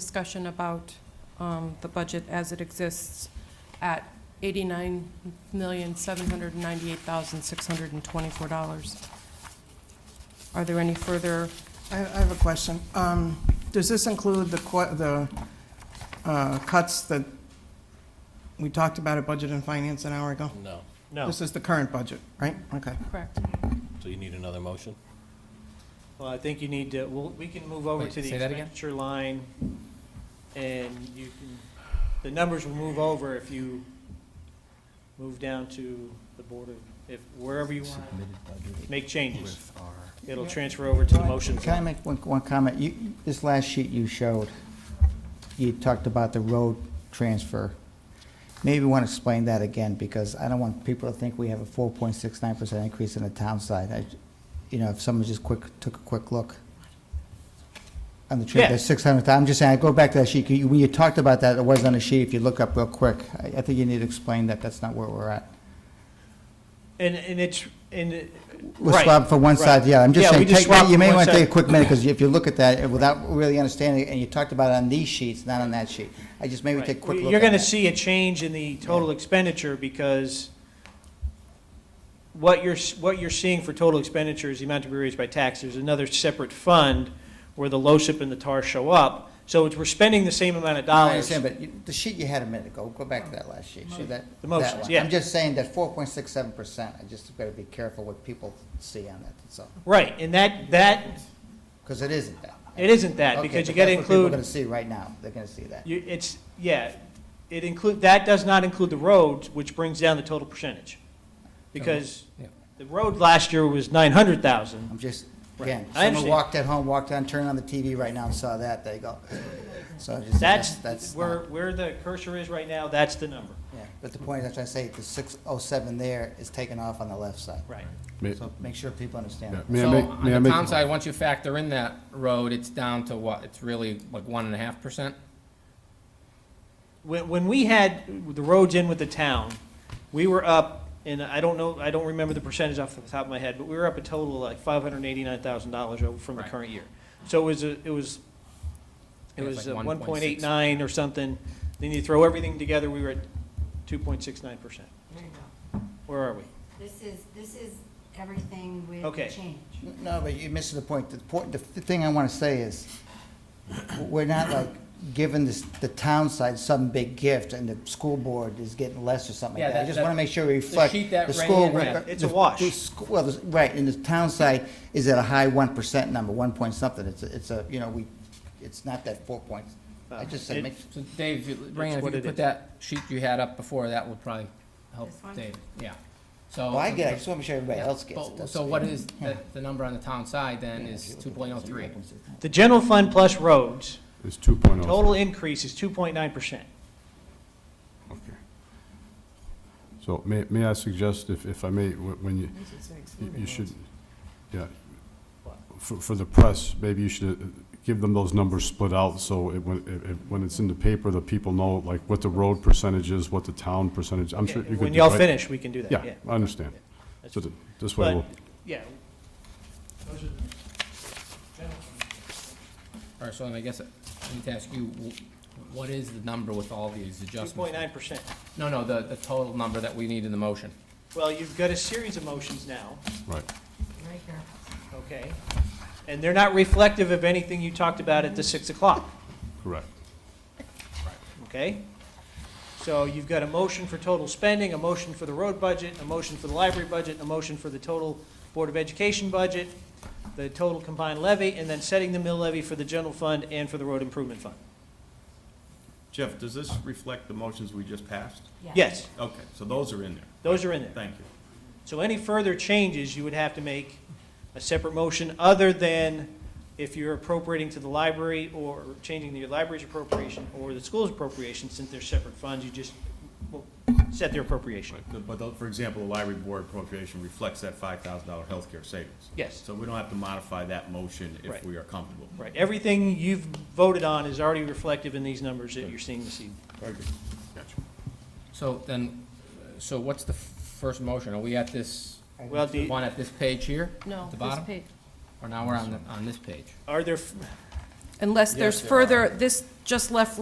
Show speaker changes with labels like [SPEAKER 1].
[SPEAKER 1] discussion about um, the budget as it exists at $89,798,624. Are there any further,
[SPEAKER 2] I, I have a question. Um, does this include the qu- the, uh, cuts that we talked about at Budget and Finance an hour ago?
[SPEAKER 3] No.
[SPEAKER 4] No,
[SPEAKER 2] This is the current budget, right? Okay.
[SPEAKER 1] correct?
[SPEAKER 3] So you need another motion?
[SPEAKER 4] well, I think you need to, we'll, we can move over
[SPEAKER 5] Wait,
[SPEAKER 4] to the
[SPEAKER 5] say that again?
[SPEAKER 4] expenditure line, and you can, the numbers will move over if you move down to the Board of, if, wherever you want to make changes. It'll transfer over to the motion.
[SPEAKER 6] Can I make one, one comment? You, this last sheet you showed, you talked about the road transfer. Maybe want to explain that again, because I don't want people to think we have a four point six nine percent increase in the town side. I, you know, if someone just quick, took a quick look. On the
[SPEAKER 4] Yeah.
[SPEAKER 6] trip, that's six hundred, I'm just saying, I go back to that sheet, You- when you talked about that, it was on the sheet, if you look up real quick. I, I think you need to explain that, that's not where we're at.
[SPEAKER 4] And, and it's, and, it-
[SPEAKER 6] We're
[SPEAKER 4] right.
[SPEAKER 6] swapped for one
[SPEAKER 4] right.
[SPEAKER 6] side, yeah, I'm just
[SPEAKER 4] Yeah,
[SPEAKER 6] saying,
[SPEAKER 4] we just
[SPEAKER 6] take that-
[SPEAKER 4] swapped
[SPEAKER 6] you may
[SPEAKER 4] one
[SPEAKER 6] want to
[SPEAKER 4] side.
[SPEAKER 6] take a quick minute, because if you look at that, uh, without really understanding, it, and you talked about it on these sheets, not on that sheet, I just maybe
[SPEAKER 4] Right.
[SPEAKER 6] take a quick look
[SPEAKER 4] You're
[SPEAKER 6] at
[SPEAKER 4] gonna
[SPEAKER 6] that.
[SPEAKER 4] see a change in the total expenditure because what you're, s- what you're seeing for total expenditure is the amount to be raised by tax. There's another separate fund where the LoSiP and the TAR show up. So it's, we're spending the same amount of
[SPEAKER 6] I
[SPEAKER 4] dollars.
[SPEAKER 6] understand, but you- the sheet you had a minute ago, go back to that last sheet, see that?
[SPEAKER 4] The
[SPEAKER 6] that
[SPEAKER 4] motions,
[SPEAKER 6] one.
[SPEAKER 4] yeah.
[SPEAKER 6] I'm just saying that four point six seven percent, I just gotta be careful what people see on that, that's all,
[SPEAKER 4] Right, and that, that,
[SPEAKER 6] because it isn't that.
[SPEAKER 4] it isn't that
[SPEAKER 6] Okay,
[SPEAKER 4] because you
[SPEAKER 6] but
[SPEAKER 4] gotta
[SPEAKER 6] that's what People are
[SPEAKER 4] include.
[SPEAKER 6] gonna see right now, they're gonna see that.
[SPEAKER 4] You, it's, yeah, it include, that does not include the roads, which brings down the total percentage. Because
[SPEAKER 5] Yeah.
[SPEAKER 4] the road last year was nine hundred thousand.
[SPEAKER 6] I'm just,
[SPEAKER 4] Right.
[SPEAKER 6] again,
[SPEAKER 4] I
[SPEAKER 6] someone
[SPEAKER 4] understand.
[SPEAKER 6] walked at home, walked on, turned on the TV right now and saw that, they go, so I just, that's,
[SPEAKER 4] That's,
[SPEAKER 6] that's.
[SPEAKER 4] where,
[SPEAKER 6] not-
[SPEAKER 4] where the cursor is right now, that's the number.
[SPEAKER 6] Yeah, but the point is, I say, the six oh seven there is taken off on the left side.
[SPEAKER 4] Right.
[SPEAKER 7] May-
[SPEAKER 6] So make sure people understand. that.
[SPEAKER 7] May I
[SPEAKER 5] So
[SPEAKER 7] make, may I
[SPEAKER 5] on the
[SPEAKER 7] make?
[SPEAKER 5] town side, once you factor in that road, it's down to what? It's really like one and a half percent?
[SPEAKER 4] When, when we had the roads in with the town, we were up, and I don't know, I don't remember the percentage off the top of my head, but we were up a total of like five hundred and eighty-nine thousand dollars from the
[SPEAKER 5] Right.
[SPEAKER 4] current year. So it was, a- it was, it
[SPEAKER 5] It was
[SPEAKER 4] was
[SPEAKER 5] like
[SPEAKER 4] one point eight nine or something. Then you throw everything together, we were at two point six nine percent.
[SPEAKER 8] There you go.
[SPEAKER 4] Where are we?
[SPEAKER 8] This is, this is everything with
[SPEAKER 4] Okay.
[SPEAKER 8] change.
[SPEAKER 6] No, but you're missing the point. The point, the thing I want to say is, we're not like giving this, the town side some big gift and the school board is getting less or something
[SPEAKER 5] Yeah,
[SPEAKER 6] like that. I
[SPEAKER 5] that-
[SPEAKER 6] just
[SPEAKER 5] that-
[SPEAKER 6] want to make sure
[SPEAKER 5] the
[SPEAKER 6] we reflect.
[SPEAKER 5] sheet that ran
[SPEAKER 6] school
[SPEAKER 5] in,
[SPEAKER 6] re-
[SPEAKER 5] yeah,
[SPEAKER 4] it's a
[SPEAKER 6] the-
[SPEAKER 4] wash.
[SPEAKER 6] the school- Well, the- right, and the town side is at a high one percent number, one point something. It's, a- it's a, you know, we, it's not that four points. I just
[SPEAKER 4] It-
[SPEAKER 6] said, make,
[SPEAKER 5] So Dave, you- Raina, if
[SPEAKER 4] what
[SPEAKER 5] you
[SPEAKER 4] it is.
[SPEAKER 5] could put that sheet you had up before, that would probably help
[SPEAKER 8] This one?
[SPEAKER 5] Dave, yeah. So.
[SPEAKER 6] well, I get it. I just want to make sure everybody
[SPEAKER 5] Yeah,
[SPEAKER 6] else gets it.
[SPEAKER 5] but-
[SPEAKER 6] That's-
[SPEAKER 5] So what is, the, the number on the town side then is two point oh three.
[SPEAKER 4] The general fund plus roads,
[SPEAKER 7] It's two point oh.
[SPEAKER 4] total increase is two point nine percent.
[SPEAKER 7] Okay. So may, may I suggest, if, if I may, wh- when you, you- you should, yeah, for, for the press, maybe you should uh, give them those numbers split out, so it, when, it- it- when it's in the paper, the people know, like, what the road percentage is, what the town percentage, I'm sure you could
[SPEAKER 4] When
[SPEAKER 7] do,
[SPEAKER 4] y'all
[SPEAKER 7] right?
[SPEAKER 4] finish, we can do that,
[SPEAKER 7] Yeah,
[SPEAKER 4] yeah.
[SPEAKER 7] I understand. So th- this way,
[SPEAKER 4] But-
[SPEAKER 7] we'll,
[SPEAKER 4] Yeah,
[SPEAKER 5] All right, so then I guess I need to ask you, wh- what is the number with all these
[SPEAKER 4] two
[SPEAKER 5] adjustments?
[SPEAKER 4] point nine percent.
[SPEAKER 5] No, no, the, the total number that we need in the motion.
[SPEAKER 4] Well, you've got a series of motions now,
[SPEAKER 7] right.
[SPEAKER 8] Right here.
[SPEAKER 4] okay? And they're not reflective of anything you talked about at the 6 o'clock,
[SPEAKER 7] Correct.
[SPEAKER 4] okay? So you've got a motion for total spending, a motion for the road budget, a motion for the library budget, a motion for the total Board of Education budget, the total combined levy, and then setting the mill levy for the general fund and for the road improvement fund.
[SPEAKER 9] Jeff, does this reflect the motions we just passed?
[SPEAKER 4] Yes,
[SPEAKER 9] Okay, so those are in there.
[SPEAKER 4] those are in there.
[SPEAKER 9] Thank you.
[SPEAKER 4] So any further changes, you would have to make a separate motion other than if you're appropriating to the library or changing the library's appropriation or the school's appropriation, since they're separate funds, you just well, set their appropriation.
[SPEAKER 9] The- But, the- for example, the library board appropriation reflects that five thousand dollar healthcare savings.
[SPEAKER 4] Yes,
[SPEAKER 9] So we don't have to modify that motion
[SPEAKER 4] Right.
[SPEAKER 9] if we are comfortable.
[SPEAKER 4] right. Everything you've voted on is already reflective in these numbers that you're seeing this evening.
[SPEAKER 9] Very good. Gotcha.
[SPEAKER 5] So then, so what's the f- first motion? Are we at this,
[SPEAKER 4] Well,
[SPEAKER 5] the
[SPEAKER 4] the,
[SPEAKER 5] one at this page here?
[SPEAKER 1] No,
[SPEAKER 5] At the
[SPEAKER 1] this
[SPEAKER 5] bottom?
[SPEAKER 1] page.
[SPEAKER 5] Or now we're on, the- on this page?
[SPEAKER 4] are there, f-
[SPEAKER 1] unless
[SPEAKER 3] Yes,
[SPEAKER 1] there's
[SPEAKER 3] there are.
[SPEAKER 1] further, this just left